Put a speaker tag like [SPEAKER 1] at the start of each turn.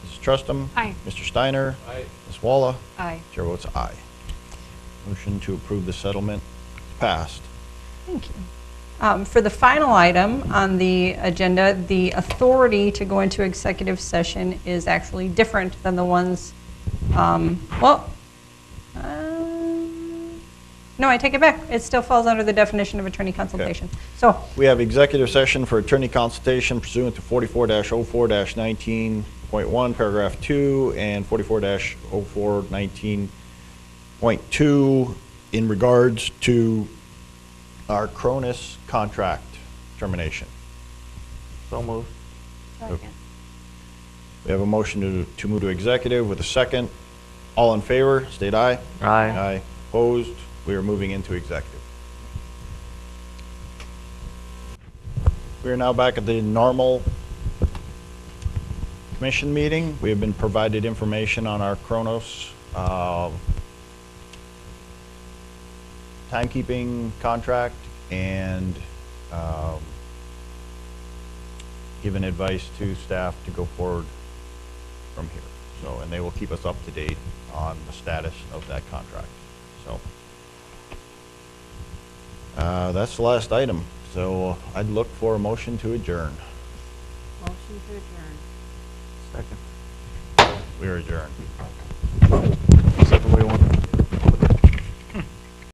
[SPEAKER 1] Trustum.
[SPEAKER 2] Aye.
[SPEAKER 1] Mr. Steiner.
[SPEAKER 3] Aye.
[SPEAKER 1] Ms. Walla.
[SPEAKER 2] Aye.
[SPEAKER 1] Chair votes aye. Motion to approve the settlement is passed.
[SPEAKER 2] Thank you.
[SPEAKER 4] Um, For the final item on the agenda, the authority to go into executive session is actually different than the ones, um, well, um, no, I take it back. It still falls under the definition of attorney consultation. So,
[SPEAKER 1] We have executive session for attorney consultation pursuant to 44-04-19.1, paragraph 2, and 44-04-19.2 in regards to our Cronus contract termination.
[SPEAKER 3] So moved.
[SPEAKER 1] We have a motion to to move to executive with a second. All in favor, state aye.
[SPEAKER 3] Aye.
[SPEAKER 1] Aye. Opposed? We are moving into executive. We are now back at the normal commission meeting. We have been provided information on our Kronos uh, timekeeping contract and um, given advice to staff to go forward from here. So, and they will keep us up to date on the status of that contract, so. Uh, that's the last item, so I'd look for a motion to adjourn.
[SPEAKER 2] Motion to adjourn.
[SPEAKER 3] Second.
[SPEAKER 1] We are adjourned.
[SPEAKER 3] Except for we want.